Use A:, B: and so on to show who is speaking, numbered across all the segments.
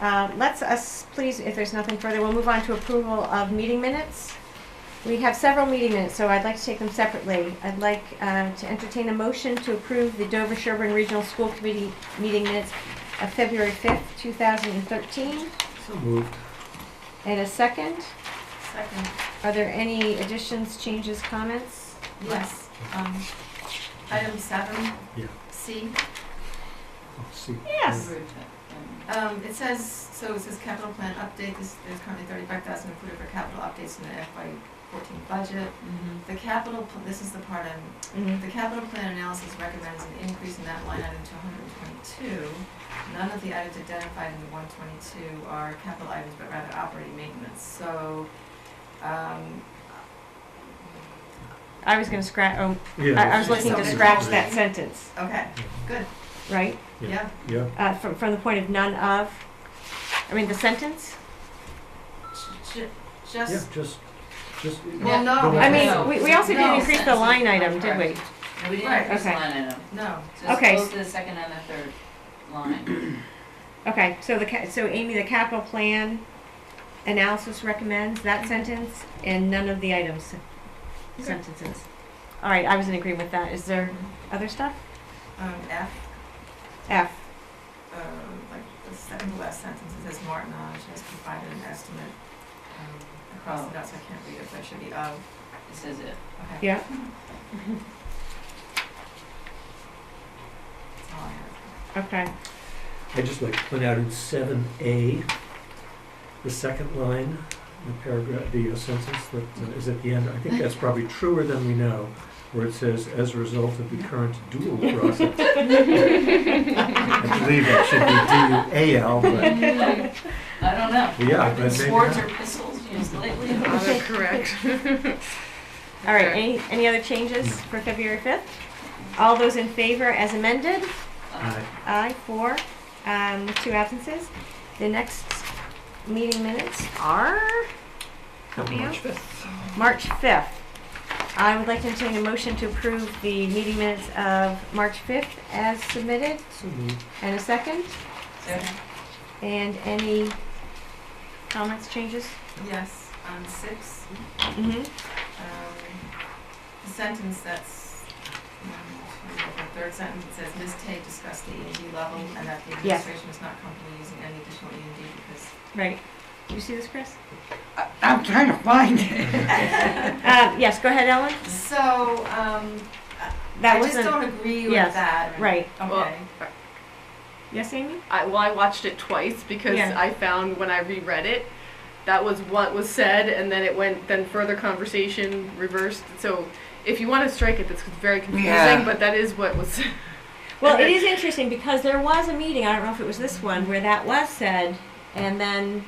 A: Uh, Let's us, please, if there's nothing further, we'll move on to approval of meeting minutes. We have several meeting minutes, so I'd like to take them separately. I'd like uh, to entertain a motion to approve the Dover Sherburne Regional School Committee meeting minutes of February 5th, 2013.
B: So moved.
A: And a second,
C: Second,
A: are there any additions, changes, comments?
C: yes. Um, Item seven.
B: Yeah.
C: C.
B: I'll Oh, see.
A: Yes.
C: Um, It says, so it says capital plan update, This there's currently thirty-five thousand included for capital updates in the FY fourteen budget. The capital, pl- this is the part I'm
A: Mhm.
C: The capital plan analysis recommends an increase in that line item to hundred and twenty-two. None of the items identified in the one twenty-two are capital items, but rather operating maintenance, so, um,
A: I was going to scratch, oh,
B: Yeah,
A: I I was
B: that's-
A: looking to
B: that's-
A: scratch that sentence,
C: okay,
A: right?
B: Yeah.
C: yeah,
B: Yeah,
A: Uh, From from the point of none of, I mean, the sentence?
C: Ju- ju-
B: yeah,
C: just,
B: just, just.
C: well, no.
B: Go
A: I
B: back.
A: mean, we, we also
C: No.
A: didn't increase the line item, did we?
D: No, we didn't
C: Right,
D: increase
A: okay.
D: line item.
C: No,
D: Just
A: Okay.
D: close to the second and the third line.
A: Okay, so the, ca- so Amy, the capital plan analysis recommends
C: Mm-hmm.
A: that sentence and none of the items, sentences. All right, I was in agreement with that. Is there other stuff?
C: um, F,
A: F.
C: uh, like, the second to last sentence, it says Martin Amish has provided an estimate, um, across,
D: Oh.
C: that's, I can't read it, but it should be of,
D: This is it.
C: okay.
A: Yeah.
C: That's all I have.
A: Okay.
B: I just like to point out in seven A, the second line, the paragraph, the uh, sentence that uh, is at the end, I think that's probably truer than we know, where it says, as a result of the current dual process. I believe it should be D U A L, but
D: I don't know.
B: Yeah,
D: I've been
B: but maybe
D: swords
B: not.
D: or pistols used lately.
C: correct.
A: All right, any, any other changes for February 5th? All those in favor as amended?
D: Uh,
A: Aye, four, um, two absences. The next meeting minutes are
B: not
A: me
B: much.
A: March 5th. I would like to entertain a motion to approve the meeting minutes of March 5th as submitted.
B: So moved.
A: And a second?
D: so-
A: And any comments, changes?
C: Yes, on six,
A: Mm-hmm.
C: um, the sentence that's, um, the third sentence, it says, Ms. Tay discussed the E and D level and that the
A: Yes.
C: administration is not comfortable using any additional E and D because
A: Right. You see this, Chris?
E: I'm trying to find it.
A: Uh, yes, go ahead, Ellen.
C: So, um,
A: That
C: I just
A: wasn't,
C: don't agree
A: yes,
C: with that.
A: right.
C: Okay.
A: Yes, Amy?
F: I, well, I watched it twice because
A: Yeah.
F: I found when I reread it, that was what was said, and then it went, then further conversation reversed. So if you want to strike it, that's very confusing,
E: Yeah.
F: but that is what was said.
A: Well, it is interesting because there was a meeting, I don't know if it was this one, where that was said and then,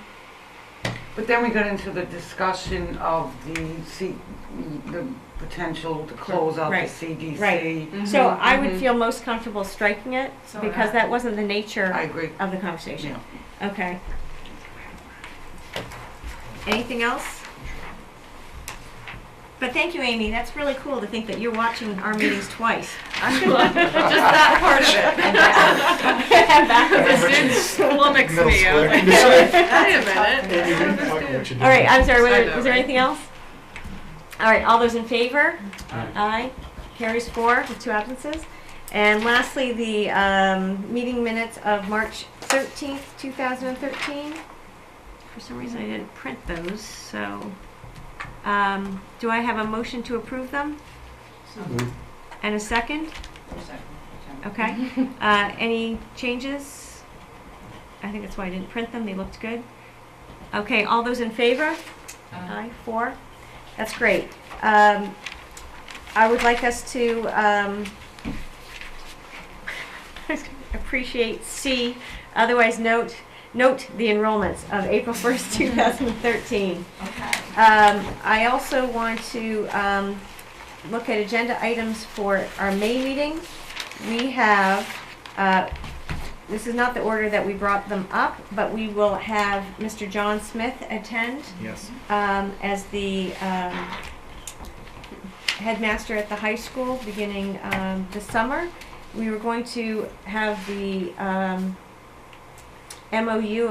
E: But then we got into the discussion of the C, the potential to close out the
A: Right,
E: CDC.
A: right.
F: Mm-hmm.
A: so I would feel most comfortable striking it
C: So
A: because that wasn't the nature
E: I agree.
A: of the conversation.
E: Yeah.
A: Okay. Anything else? But thank you, Amy. That's really cool to think that you're watching our meetings twice.
F: just that part of it. it flummoxed me. I was like, wait a minute.
A: All right, I'm sorry,
F: I
A: was there,
F: know,
A: was there
F: right?
A: anything else? All right, all those in favor?
B: Aye.
A: Aye. Carries four with two absences. And lastly, the, um, meeting minutes of March thirteenth, two thousand and thirteen. For some reason, I didn't print those, so, um, do I have a motion to approve them?
B: So moved.
A: And a second?
D: for second, for
A: Okay. Uh, any changes? I think that's why I didn't print them. They looked good. Okay, all those in favor?
D: second. Uh,
A: Aye, four. That's great. Um, I would like us to, um, appreciate C, otherwise note, note the enrollments of April first, two thousand and thirteen.
C: Okay.
A: Um, I also want to, um, look at agenda items for our May meeting. We have, uh, this is not the order that we brought them up, but we will have Mr. John Smith attend
B: Yes.
A: um, as the um, headmaster at the high school beginning um, this summer. We were going to have the um, MOU